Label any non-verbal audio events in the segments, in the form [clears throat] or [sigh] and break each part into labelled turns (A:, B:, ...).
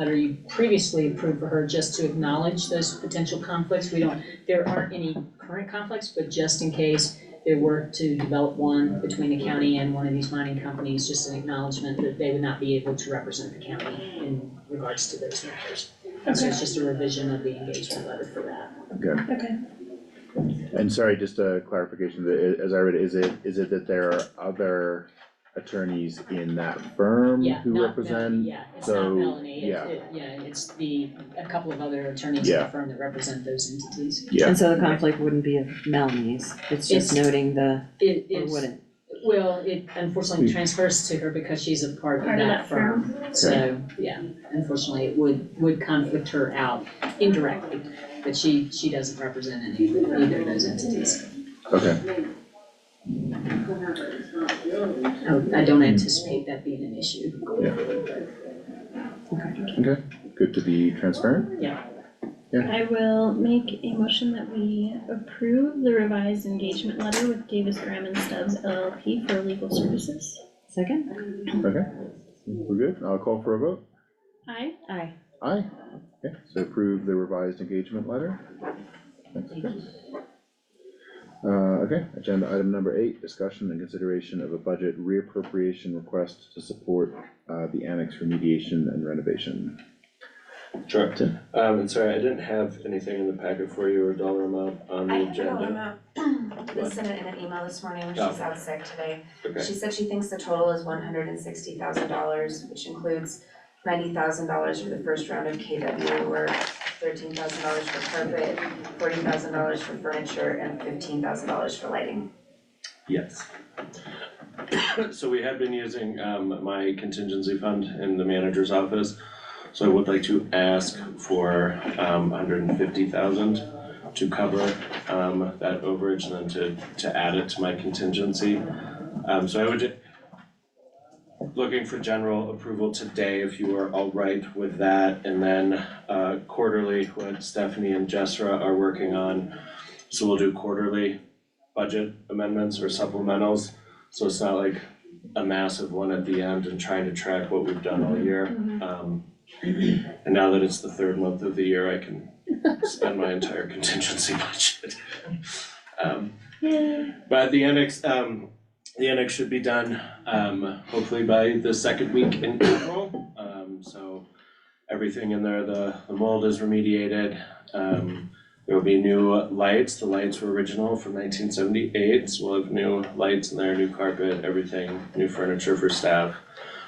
A: letter you previously approved for her, just to acknowledge those potential conflicts. We don't, there aren't any current conflicts, but just in case there were to develop one between the county and one of these mining companies, just an acknowledgement that they would not be able to represent the county in regards to those matters. So it's just a revision of the engagement letter for that.
B: Okay.
C: And sorry, just a clarification, the- as I read, it, is it, is it that there are other attorneys in that firm
A: Yeah,
C: who
A: not Melanie,
C: represent?
A: yeah, it's not
C: so,
A: Melanie,
C: yeah.
A: it, it, yeah, it's the, a couple of other attorneys in the
C: Yeah.
A: firm that represent those entities.
C: Yeah.
D: And so the conflict wouldn't be of Melanie's, it's just
A: It's-
D: noting the,
A: It
D: or
A: is,
D: wouldn't.
A: well, it unfortunately
C: Hmm.
A: transfers to her because she's a part of
B: Part of
A: that
B: that
A: firm. So, yeah, unfortunately, it would, would conflict her out indirectly, but she, she doesn't represent any, either of those entities.
C: Okay,
B: Hmm.
A: Oh, I- I don't anticipate that being an issue.
C: okay, good to be transparent,
B: I will make a motion that we approve the revised engagement letter with Davis Graham and Stubbs LLP for legal services.
D: Second?
C: okay, we're good, I'll call for a vote,
B: Aye.
D: Aye.
C: aye, okay, so approve the revised engagement letter. Thanks. Uh, okay, agenda item number eight, discussion and consideration of a budget reappropriation request to support, uh, the annex remediation and renovation.
E: Sure,
C: Tim?
E: um, and sorry, I didn't have anything in the packet for you or dollar amount on
F: I
E: the
F: have a
E: agenda.
F: memo, I sent it in an email this morning, she's
E: Oh.
F: out sick today.
E: Okay,
F: She said she thinks the total is one hundred and sixty thousand dollars, which includes ninety thousand dollars for the first round of KW work, thirteen thousand dollars for carpet, forty thousand dollars for furniture, and fifteen thousand dollars for lighting.
E: yes. [coughs] So we had been using, um, my contingency fund in the manager's office. So I would like to ask for, um, hundred and fifty thousand to cover, um, that overage and then to, to add it to my contingency. Um, so I would ju- looking for general approval today, if you are all right with that. And then, uh, quarterly, what Stephanie and Jessra are working on. So we'll do quarterly budget amendments or supplementals, so it's not like a massive one at the end and trying to track what we've done all year. Um, and now that it's the third month of the year, I can spend my entire [laughs] contingency budget. Um,
B: Yay.
E: but the annex, um, the annex should be done, um, hopefully by the second week in April. Um, so everything in there, the, the mold is remediated. Um, there will be new lights. The lights were original from nineteen seventy-eight, so we'll have new lights in there, new carpet, everything, new furniture for staff.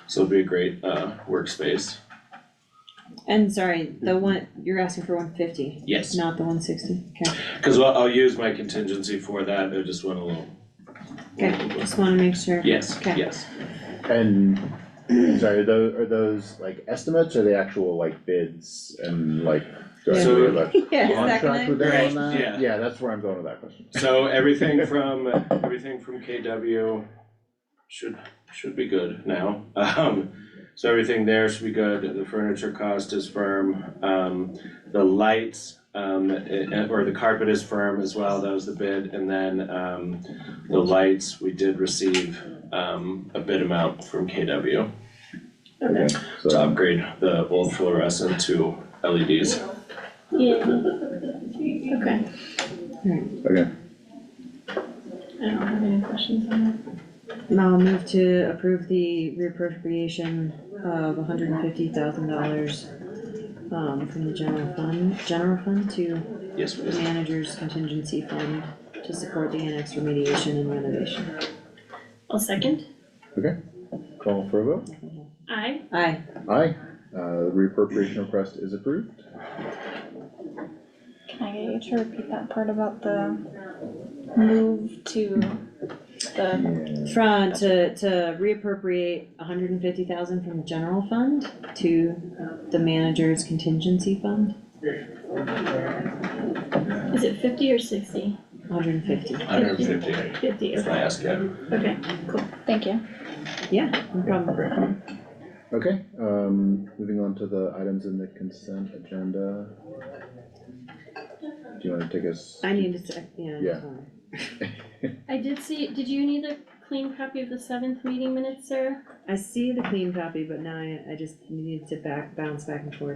E: So it'll be a great, uh, workspace.
D: And sorry, the one, you're asking for one fifty,
E: Yes.
D: not the one sixty, okay,
E: Cause I'll, I'll use my contingency for that. I just went a little.
D: okay, just wanna make sure.
E: Yes,
D: Okay. [laughs]
E: yes.
C: And, [clears throat] I'm sorry, are those, are those like estimates or the actual like bids and like? do I
E: So-
C: really like
D: Yeah,
C: On
D: second
C: track
D: I-
C: with that on
E: Right,
C: that?
E: yeah.
C: Yeah, that's where I'm going with that question.
E: So everything from, everything from KW should, should be good now. Um, so everything there should be good, the furniture cost is firm, um, the lights, um, eh, or the carpet is firm as well, that was the bid. And then, um, the lights, we did receive, um, a bid amount from KW
C: Okay,
E: to
C: so,
E: upgrade the old fluorescent to E LEDs.
B: Yay. Okay,
C: okay,
B: I don't have any questions on
D: Now I'll move to approve the reappropriation of hundred and fifty thousand dollars um, from the general fund, general fund to
E: Yes,
D: the
E: please.
D: manager's contingency fund to support the annex remediation and renovation.
B: that. I'll second.
C: call for a vote.
B: Aye.
D: Aye.
C: Aye, uh, the reappropriation request is approved.
G: Can I get you to repeat that part about the move to the,
C: Yeah.
D: From, to, to reappropriate hundred and fifty thousand from the general fund to uh, the manager's contingency fund,
B: Is it fifty or sixty?
D: hundred and fifty,
E: Hundred and fifty,
B: Fifty,
E: if I
B: okay,
E: ask you.
B: okay.
G: thank you.
D: yeah, no problem.
C: Okay, um, moving on to the items in the consent agenda. Do you wanna take us?
D: I need to, sec- yeah. I just
C: Yeah.
D: wanna-
B: I did see, did you need a clean copy of the seventh meeting minutes, Sarah?
D: I see the clean copy, but now I, I just needed to back, bounce back and forth